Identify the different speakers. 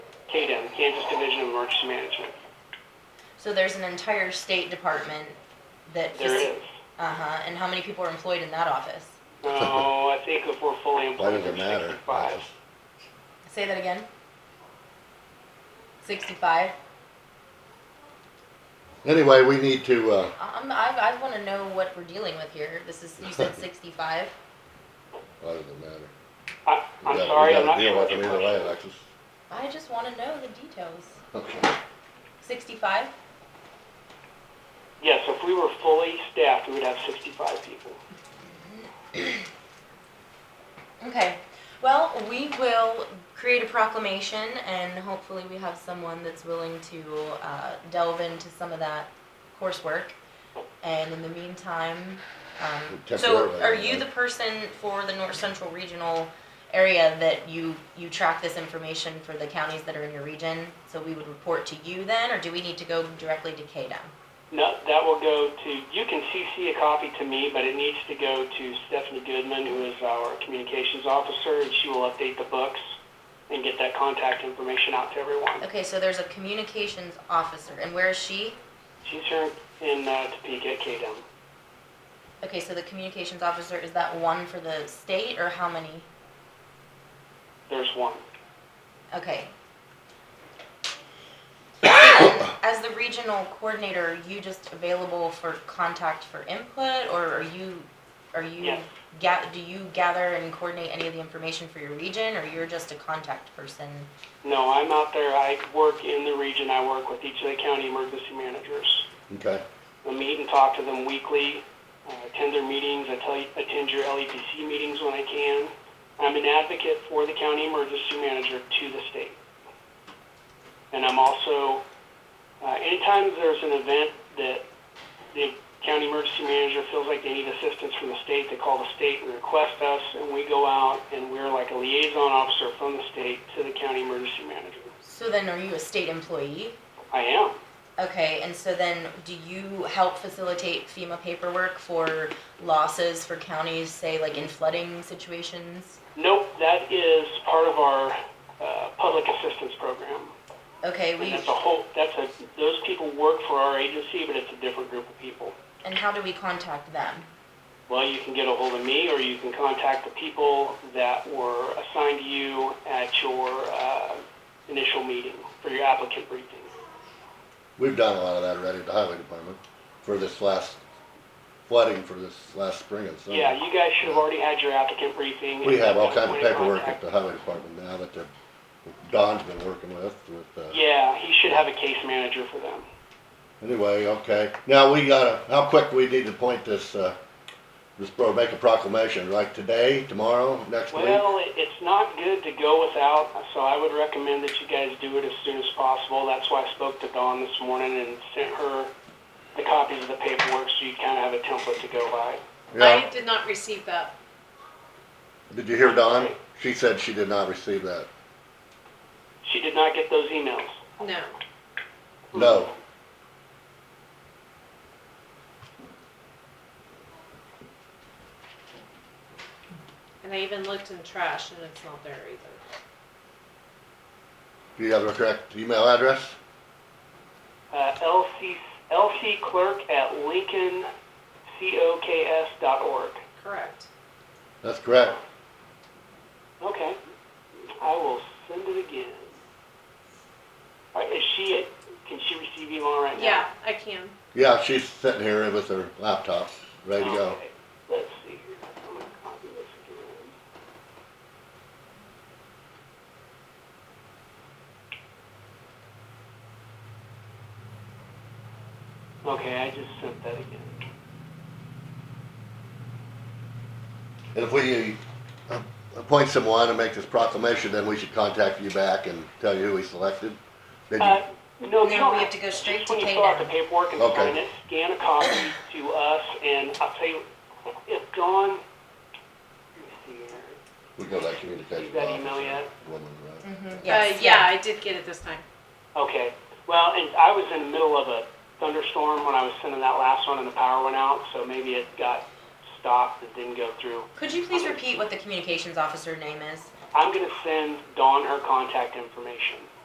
Speaker 1: KDEM, Kansas Division of Emergency Management.
Speaker 2: So there's an entire state department that.
Speaker 1: There it is.
Speaker 2: Uh-huh, and how many people are employed in that office?
Speaker 1: No, Oh, I think if we're fully
Speaker 3: Why
Speaker 1: employed,
Speaker 3: does it
Speaker 1: there's
Speaker 3: matter?
Speaker 1: sixty-five.
Speaker 2: Say that again? Sixty-five?
Speaker 3: Anyway, we need to, uh,
Speaker 2: I'm, I, I wanna know what we're dealing with here. This is, you said sixty-five?
Speaker 3: why does it matter?
Speaker 1: I,
Speaker 3: We
Speaker 1: I'm
Speaker 3: gotta-
Speaker 1: sorry, I'm not
Speaker 3: We
Speaker 1: sure
Speaker 3: gotta
Speaker 1: what your
Speaker 3: deal with them either
Speaker 1: question
Speaker 3: way,
Speaker 1: is.
Speaker 3: Alexis.
Speaker 2: I just wanna know the details.
Speaker 3: Okay.
Speaker 2: Sixty-five?
Speaker 1: Yes, if we were fully staffed, we would have sixty-five people.
Speaker 2: Okay, well, we will create a proclamation and hopefully we have someone that's willing to uh, delve into some of that coursework. And in the meantime, um, so
Speaker 3: Temporarily,
Speaker 2: are you the
Speaker 3: right?
Speaker 2: person for the North Central Regional area that you, you track this information for the counties that are in your region? So we would report to you then, or do we need to go directly to KDEM?
Speaker 1: No, that will go to, you can CC a copy to me, but it needs to go to Stephanie Goodman, who is our communications officer, and she will update the books and get that contact information out to everyone.
Speaker 2: Okay, so there's a communications officer, and where is she?
Speaker 1: She's here in uh, Topeka at KDEM.
Speaker 2: Okay, so the communications officer, is that one for the state or how many?
Speaker 1: There's one.
Speaker 2: Okay. And As the regional coordinator, are you just available for contact for input or are you, are you,
Speaker 1: Yes.
Speaker 2: ga- do you gather and coordinate any of the information for your region or you're just a contact person?
Speaker 1: No, I'm out there, I work in the region, I work with each of the county emergency managers.
Speaker 3: Okay,
Speaker 1: I meet and talk to them weekly, uh, attend their meetings, I tell you, attend your LEPC meetings when I can. I'm an advocate for the county emergency manager to the state. And I'm also, uh, anytime there's an event that the county emergency manager feels like they need assistance from the state, they call the state and request us, and we go out and we're like a liaison officer from the state to the county emergency manager.
Speaker 2: So then are you a state employee?
Speaker 1: I am.
Speaker 2: Okay, and so then do you help facilitate FEMA paperwork for losses for counties, say like in flooding situations?
Speaker 1: Nope, that is part of our uh, public assistance program.
Speaker 2: Okay,
Speaker 1: And
Speaker 2: we,
Speaker 1: that's a whole, that's a, those people work for our agency, but it's a different group of people.
Speaker 2: and how do we contact them?
Speaker 1: Well, you can get a hold of me, or you can contact the people that were assigned to you at your uh, initial meeting for your applicant briefing.
Speaker 3: we've done a lot of that already at the highway department for this last flooding for this last spring and summer.
Speaker 1: Yeah, you guys should have already had your applicant briefing.
Speaker 3: We have all kinds of
Speaker 1: Point of
Speaker 3: paperwork at
Speaker 1: contact.
Speaker 3: the highway department now that the, Don's been working with, with, uh,
Speaker 1: Yeah, he should have a case manager for them.
Speaker 3: anyway, okay. Now, we gotta, how quick we need to point this, uh, this, or make a proclamation, like today, tomorrow, next week?
Speaker 1: Well, it- it's not good to go without, so I would recommend that you guys do it as soon as possible. That's why I spoke to Dawn this morning and sent her the copies of the paperwork so you kind of have a template to go by.
Speaker 3: Yeah,
Speaker 4: I did not receive that.
Speaker 3: did you hear Don? She said she did not receive that.
Speaker 1: She did not get those emails.
Speaker 4: No.
Speaker 3: No.
Speaker 4: And I even looked in trash and it's not there either.
Speaker 3: Do you have the correct email address?
Speaker 1: Uh, LC, lcclerk at lincolncoks.org.
Speaker 4: Correct.
Speaker 3: That's correct.
Speaker 1: Okay, I will send it again. All right, is she, can she receive email right now?
Speaker 4: Yeah, I can.
Speaker 3: Yeah, she's sitting here with her laptop, ready to go.
Speaker 1: Okay, Let's see here, I'm gonna copy this again. Okay, I just sent that again.
Speaker 3: And if we uh, appoint someone and make this proclamation, then we should contact you back and tell you who we selected. Then
Speaker 1: Uh,
Speaker 3: you,
Speaker 1: no,
Speaker 2: No,
Speaker 1: you don't
Speaker 2: we
Speaker 1: have
Speaker 2: have to go
Speaker 1: just
Speaker 2: straight to
Speaker 1: When you
Speaker 2: Kay
Speaker 1: fill out
Speaker 2: now.
Speaker 1: the paperwork and
Speaker 3: Okay.
Speaker 1: sign it, scan a copy to us, and I'll tell you, if Dawn, let me see here,
Speaker 3: we go to that communication
Speaker 1: Did that
Speaker 3: officer,
Speaker 1: email yet?
Speaker 3: woman, right?
Speaker 2: Mm-hmm,
Speaker 4: Uh, yeah, I did get it this time.
Speaker 1: okay. Well, and I was in the middle of a thunderstorm when I was sending that last one, and the power went out, so maybe it got stopped, it didn't go through.
Speaker 2: Could you please repeat what the communications officer name is?
Speaker 1: I'm gonna send Dawn her contact information.